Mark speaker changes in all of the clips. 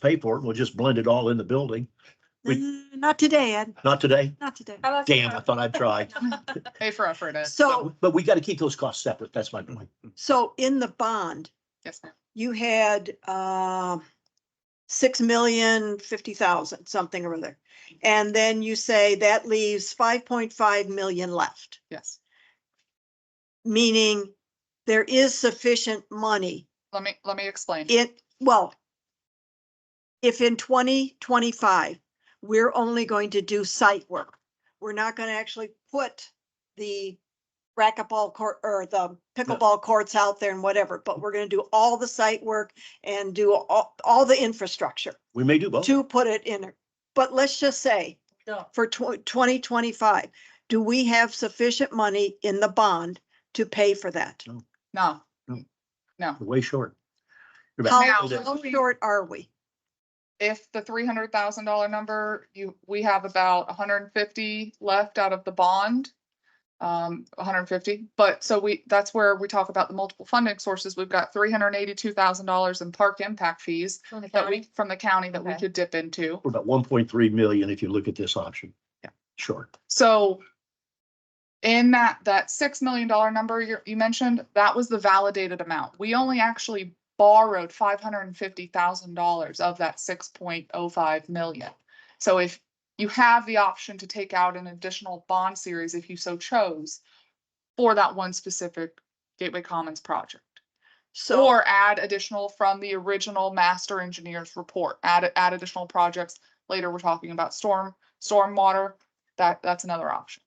Speaker 1: pay for it. We'll just blend it all in the building. We-
Speaker 2: Mm, Not today, Ed,
Speaker 1: Not today.
Speaker 2: not today.
Speaker 3: How about
Speaker 1: Damn, I
Speaker 3: some-
Speaker 1: thought I'd tried.
Speaker 4: Pay for effort. uh,
Speaker 2: So,
Speaker 1: But we got to keep those costs separate. That's my point.
Speaker 2: so in the bond,
Speaker 4: Yes, ma'am.
Speaker 2: you had, um, six million fifty thousand, something or other. And then you say that leaves five point five million left,
Speaker 4: Yes.
Speaker 2: meaning there is sufficient money.
Speaker 4: Let me, let me explain.
Speaker 2: It, well, if in twenty twenty-five, we're only going to do site work, we're not going to actually put the racquetball court or the pickleball courts out there and whatever, but we're going to do all the site work and do all, all the infrastructure
Speaker 1: We may do both.
Speaker 2: to put it in. But let's just say
Speaker 3: No.
Speaker 2: for twenty twenty-five, do we have sufficient money in the bond to pay for that?
Speaker 4: No,
Speaker 1: We're Way short. You're about-
Speaker 2: How
Speaker 1: Now-
Speaker 2: how short are we?
Speaker 4: if the three hundred thousand dollar number, you, we have about hundred and fifty left out of the bond. Um, hundred and fifty, but so we, that's where we talk about the multiple funding sources. We've got three hundred and eighty-two thousand dollars in park impact fees
Speaker 3: From the
Speaker 4: that
Speaker 3: county?
Speaker 4: we, from the county that we
Speaker 3: Okay.
Speaker 4: could dip into.
Speaker 1: We're about one point three million if you look at this option.
Speaker 4: Yeah.
Speaker 1: Short.
Speaker 4: So in that, that six million dollar number you, you mentioned, that was the validated amount. We only actually borrowed five hundred and fifty thousand dollars of that six point oh five million. So if you have the option to take out an additional bond series if you so chose for that one specific Gateway Commons project.
Speaker 2: So.
Speaker 4: Or add additional from the original master engineer's report, add, add additional projects. Later, we're talking about storm, stormwater. That, that's another option.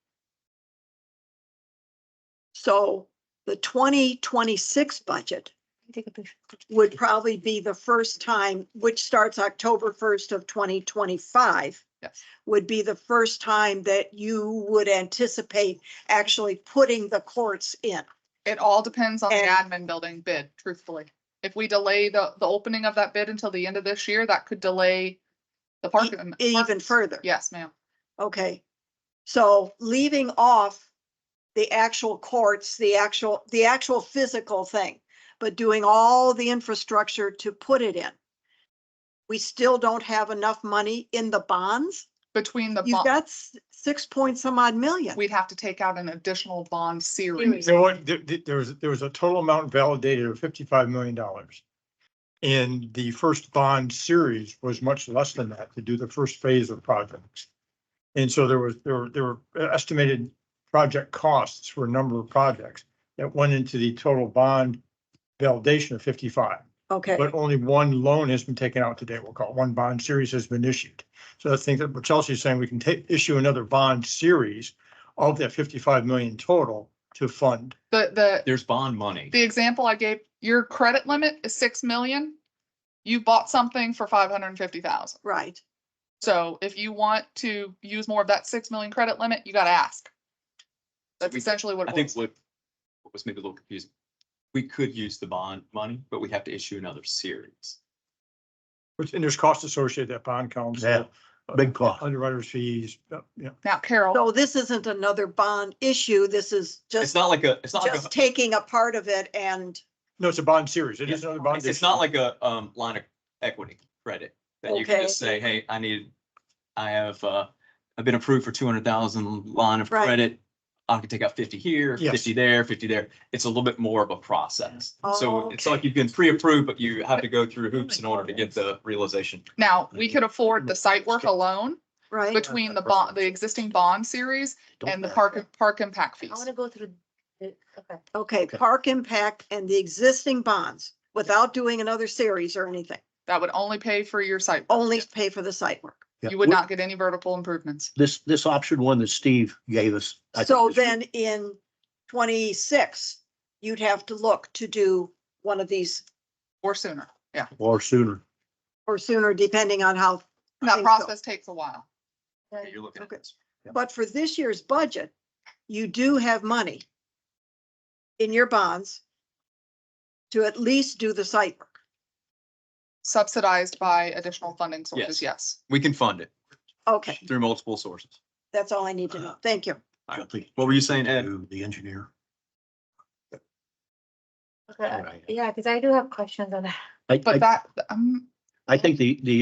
Speaker 2: So the twenty twenty-six budget
Speaker 3: Take a picture.
Speaker 2: would probably be the first time, which starts October first of twenty twenty-five.
Speaker 4: Yes.
Speaker 2: Would be the first time that you would anticipate actually putting the courts in.
Speaker 4: It all depends on the
Speaker 2: And-
Speaker 4: admin building bid, truthfully. If we delay the, the opening of that bid until the end of this year, that could delay the
Speaker 2: E-
Speaker 4: park. and-
Speaker 2: Even
Speaker 4: park-
Speaker 2: further.
Speaker 4: Yes, ma'am.
Speaker 2: Okay. So leaving off the actual courts, the actual, the actual physical thing, but doing all the infrastructure to put it in. We still don't have enough money in the bonds.
Speaker 4: Between the,
Speaker 2: You've
Speaker 4: bond,
Speaker 2: got s- six point some odd million.
Speaker 4: we'd have to take out an additional bond
Speaker 3: Series.
Speaker 4: series.
Speaker 5: There were, there, there- there was, there was a total amount validated of fifty-five million dollars. And the first bond series was much less than that to do the first phase of projects. And so there was, there were, there were estimated project costs for a number of projects that went into the total bond validation of fifty-five.
Speaker 2: Okay,
Speaker 5: But only one loan has been taken out today, we'll call it, one bond series has been issued. So I think that what Chelsea's saying, we can take, issue another bond series of that fifty-five million total to fund.
Speaker 4: The, the
Speaker 6: There's bond money.
Speaker 4: the example I gave, your credit limit is six million. You bought something for five hundred and fifty thousand.
Speaker 2: right.
Speaker 4: So if you want to use more of that six million credit limit, you gotta ask. That's
Speaker 6: we-
Speaker 4: essentially what
Speaker 6: I
Speaker 4: it
Speaker 6: think
Speaker 4: was.
Speaker 6: what, what was maybe a little confusing, we could use the bond money, but we have to issue another series.
Speaker 5: Which, and there's costs associated that bond
Speaker 1: Yeah,
Speaker 5: council, uh,
Speaker 1: big cost.
Speaker 5: underwriters fees, uh, yeah.
Speaker 4: Now, Carol,
Speaker 2: So this isn't another bond issue. This is
Speaker 6: It's
Speaker 2: just,
Speaker 6: not like a, it's not like
Speaker 2: just
Speaker 6: a,
Speaker 2: taking a part of it and,
Speaker 5: No, it's a bond series. It
Speaker 6: Yeah.
Speaker 5: is another bond.
Speaker 6: it's- it's not like a, um, line of equity credit that you can just say, hey, I need, I have, uh, I've been approved for two hundred thousand line of
Speaker 2: Right.
Speaker 6: credit. I can take out fifty here,
Speaker 5: Yes.
Speaker 6: fifty there, fifty there. It's a little bit more of a process. So
Speaker 2: Oh,
Speaker 6: it's
Speaker 2: okay. Oh,
Speaker 6: like you've been pre-approved, but you have to go through hoops in order to get the realization.
Speaker 4: now, we
Speaker 6: Mhm.
Speaker 4: could afford the site work alone
Speaker 2: right?
Speaker 4: between the bond, the existing bond series
Speaker 1: Don't
Speaker 4: and the
Speaker 1: matter.
Speaker 4: park, park impact
Speaker 3: I want
Speaker 4: fees.
Speaker 3: to go through. the- Okay.
Speaker 2: Okay, park impact and the existing bonds without doing another series or anything,
Speaker 4: That would only pay for your site. work.
Speaker 2: only pay for the site work.
Speaker 1: Yeah.
Speaker 4: You would not get any vertical improvements.
Speaker 1: This, this option one that Steve gave us. I think
Speaker 2: So
Speaker 1: is-
Speaker 2: then in twenty-six, you'd have to look to do one of these
Speaker 4: Or sooner. Yeah.
Speaker 1: Or sooner.
Speaker 2: or sooner, depending on how.
Speaker 4: That
Speaker 2: things go.
Speaker 4: process takes a while.
Speaker 3: Then-
Speaker 6: You're looking at
Speaker 2: Okay.
Speaker 6: this.
Speaker 2: But for this year's budget, you do have money in your bonds to at least do the site work.
Speaker 4: Subsidized by additional funding sources, yes.
Speaker 6: Yes. We can fund it
Speaker 2: Okay,
Speaker 6: through multiple sources.
Speaker 2: that's all I need
Speaker 1: Uh,
Speaker 2: to know. Thank you.
Speaker 6: All right.
Speaker 1: Something
Speaker 6: What were you saying, Ed?
Speaker 1: to The engineer.
Speaker 3: Okay.
Speaker 1: Alright.
Speaker 3: Yeah, because I do have questions on that.
Speaker 1: I,
Speaker 4: But
Speaker 1: I,
Speaker 4: that, um,
Speaker 1: I think the, the